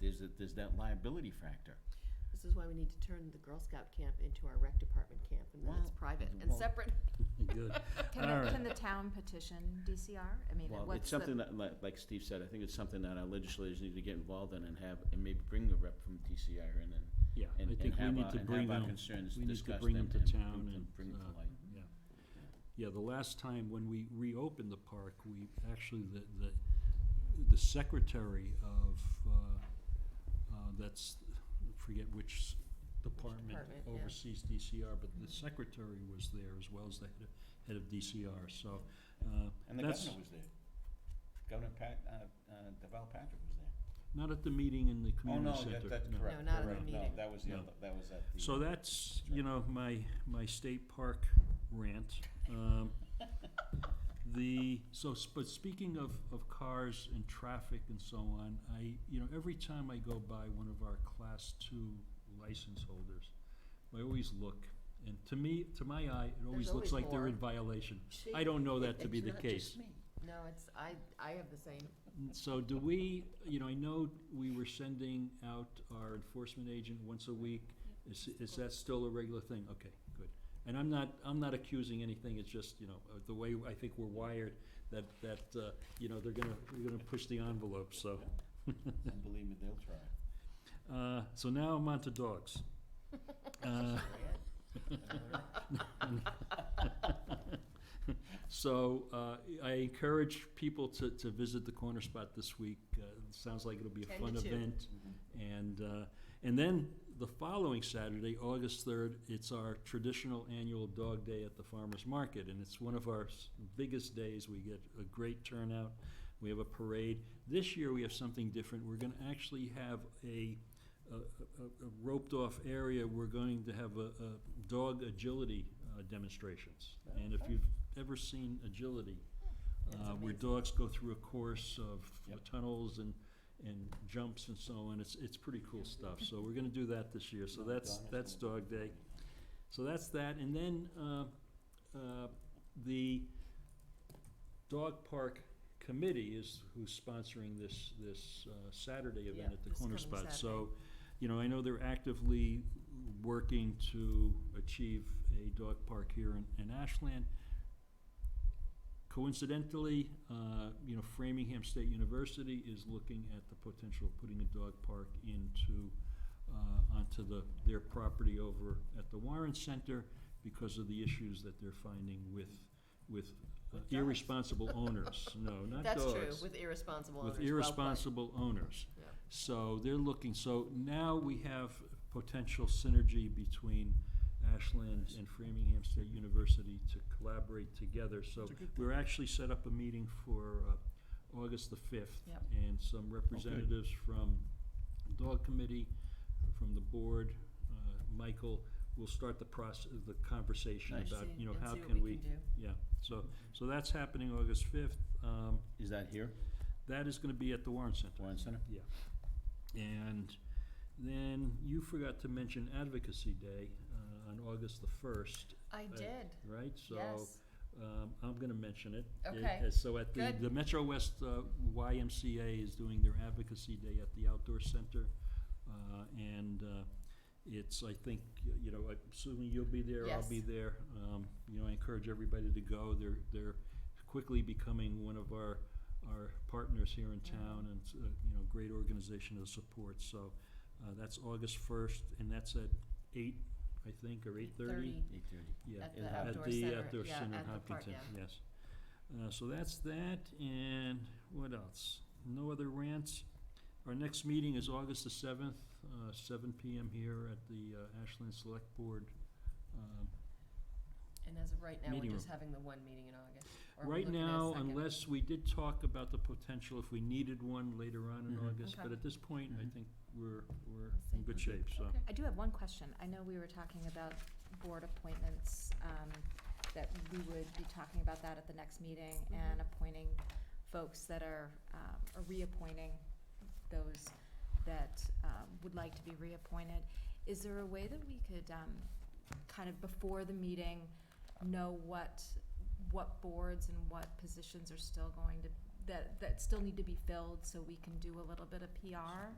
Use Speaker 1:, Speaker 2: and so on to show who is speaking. Speaker 1: that there's that liability factor.
Speaker 2: This is why we need to turn the Girl Scout camp into our rec department camp, and then it's
Speaker 1: Well,
Speaker 2: private and
Speaker 1: well,
Speaker 2: separate.
Speaker 3: Good. All
Speaker 4: Can, the-
Speaker 3: right.
Speaker 4: can the town petition DCR? I mean,
Speaker 1: Well, it's
Speaker 4: what's the?
Speaker 1: something that, like, like Steve said, I think it's something that our legislators need to get involved in and have, and maybe bring a rep from DCR in and,
Speaker 3: Yeah, I
Speaker 1: and, and
Speaker 3: think we
Speaker 1: have
Speaker 3: need
Speaker 1: our, and
Speaker 3: to
Speaker 1: have
Speaker 3: bring
Speaker 1: our
Speaker 3: them,
Speaker 1: concerns
Speaker 3: we need
Speaker 1: discussed
Speaker 3: to
Speaker 1: and
Speaker 3: bring them to town
Speaker 1: bring them-
Speaker 3: and.
Speaker 1: Bring them
Speaker 3: uh,
Speaker 1: to light.
Speaker 3: Yeah. Yeah, the last time when we reopened the park, we, actually, the, the, the secretary of, uh, uh, that's, I forget which
Speaker 2: department,
Speaker 3: department
Speaker 2: yeah.
Speaker 3: oversees DCR, but the secretary was there as well as the head of, head of DCR, so, uh,
Speaker 1: And the
Speaker 3: that's
Speaker 1: governor was there. Governor Pat, uh, uh, Deval Patrick was there.
Speaker 3: not at the meeting in the
Speaker 1: Oh, no,
Speaker 3: community center.
Speaker 1: that, that's
Speaker 3: no.
Speaker 1: correct.
Speaker 2: No, not at the
Speaker 1: Correct. No,
Speaker 2: meeting.
Speaker 1: that was the
Speaker 3: No.
Speaker 1: other, that was at the.
Speaker 3: So that's, you know, my, my state park rant. Um, The, so, s- but speaking of, of cars and traffic and so on, I, you know, every time I go by one of our class two license holders, I always look, and to me, to my eye, it always
Speaker 2: always
Speaker 3: looks like they're in
Speaker 2: more.
Speaker 3: violation. I don't know oh, that to be the case.
Speaker 2: No, it's, I, I have the same.
Speaker 3: So do we, you know, I know we were sending out our enforcement agent once a week. Is, is that still a regular thing? Okay, good. And I'm not, I'm not accusing anything, it's just, you know, uh, the way I think we're wired, that, that, uh, you know, they're gonna, they're gonna push the envelope, so.
Speaker 1: And believe me, they'll try.
Speaker 3: Uh, so now I'm on to dogs. Uh, So uh, I encourage people to, to visit the Corner Spot this week. Uh, it Sounds like it'll be a
Speaker 2: 10 to
Speaker 3: fun
Speaker 2: 2.
Speaker 3: event. And, uh, and then the following Saturday, August 3rd, it's our traditional annual Dog Day at the Farmers Market. And it's one of our s- biggest days. We get a great turnout. We have a parade. This year, we have something different. We're going to actually have a, a roped-off area. We're going to have a, a dog agility uh, demonstrations. And if you've ever seen agility, uh, where dogs go through a course of
Speaker 1: Yep.
Speaker 3: tunnels and, and jumps and so on. It's, it's pretty cool stuff. So we're gonna do that this year. So that's, that's Dog Day. So that's that. And then, uh, uh, the Dog Park Committee is who's sponsoring this, this uh, Saturday event
Speaker 2: Yeah,
Speaker 3: at the
Speaker 2: this
Speaker 3: Corner
Speaker 2: coming
Speaker 3: Spot. So, you know, I know they're actively working to achieve a dog park here in, in Ashland. Coincidentally, uh, you know, Framingham State University is looking at the potential of putting a dog park into, uh, onto the, their property over at the Warren Center because of the issues that they're finding with, with uh,
Speaker 2: With dogs.
Speaker 3: irresponsible owners. No, not
Speaker 2: That's
Speaker 3: dogs.
Speaker 2: true, with irresponsible owners.
Speaker 3: With
Speaker 2: well played.
Speaker 3: irresponsible owners.
Speaker 2: Yeah.
Speaker 3: So they're looking, so now we have potential synergy between Ashland and Framingham State University to collaborate together. So we're actually set up a meeting for uh, August the 5th.
Speaker 2: Yep.
Speaker 3: And some representatives from Dog Committee, from the board, uh, Michael, will start the process, the conversation
Speaker 1: Nice.
Speaker 3: about,
Speaker 2: See-
Speaker 3: you know,
Speaker 2: and
Speaker 3: how
Speaker 2: see what
Speaker 3: can
Speaker 2: we
Speaker 3: we?
Speaker 2: can do.
Speaker 3: Yeah, so, so that's happening August 5th. Um,
Speaker 1: Is that here,
Speaker 3: That is going to be at the Warren Center.
Speaker 1: Warren Center?
Speaker 3: Yeah. And then you forgot to mention Advocacy Day uh, on August the 1st,
Speaker 2: I did,
Speaker 3: right? So
Speaker 2: yes.
Speaker 3: um, I'm going to mention it.
Speaker 2: Okay.
Speaker 3: Uh, So at the,
Speaker 2: Good.
Speaker 3: the Metro West uh, YMCA is doing their Advocacy Day at the Outdoor Center. uh, And uh, it's, I think, you know, I'm assuming you'll be there, I'll be
Speaker 2: Yes.
Speaker 3: there. Um, You know, I encourage everybody to go. They're, they're quickly becoming one of our, our partners here in
Speaker 2: Mm-hmm.
Speaker 3: town and, it's a, you know, great organization to support. So uh, that's August 1st and that's at 8, I think, or 8:30?
Speaker 1: Eight thirty.
Speaker 3: Yeah,
Speaker 2: At
Speaker 1: the
Speaker 2: outdoor
Speaker 3: At the
Speaker 2: center,
Speaker 3: outdoor
Speaker 2: yeah,
Speaker 3: center, in
Speaker 2: at the park,
Speaker 3: Hopkinton, yes. Uh, so that's that, and what else? No other rants? Our next meeting is August the seventh, uh, seven PM here at the uh, Ashland Select Board. Um,
Speaker 2: And as of right now, we're
Speaker 3: Meeting
Speaker 2: just
Speaker 3: room.
Speaker 2: having the one meeting in August. or we're
Speaker 3: Right
Speaker 2: looking at a
Speaker 3: now,
Speaker 2: second.
Speaker 3: unless, we did talk about the potential if we needed one later on in
Speaker 1: Mhm.
Speaker 3: August,
Speaker 2: Mm-hmm. Okay.
Speaker 3: but
Speaker 2: Mm-hmm.
Speaker 3: at this point, I
Speaker 1: Mhm.
Speaker 3: think we're, we're
Speaker 2: Let's see.
Speaker 3: in good shape, so.
Speaker 2: Okay.
Speaker 4: I do have one question. I know we were talking about board appointments, um, that we would be talking about that at the next meeting and
Speaker 2: Mhm.
Speaker 4: appointing folks that are, um, or reappointing those that, um, would like to be reappointed. Is there a way that we could, um, kind of before the meeting, know what, what boards and what positions are still going to, that, that still need to be filled so we can do a little bit of PR?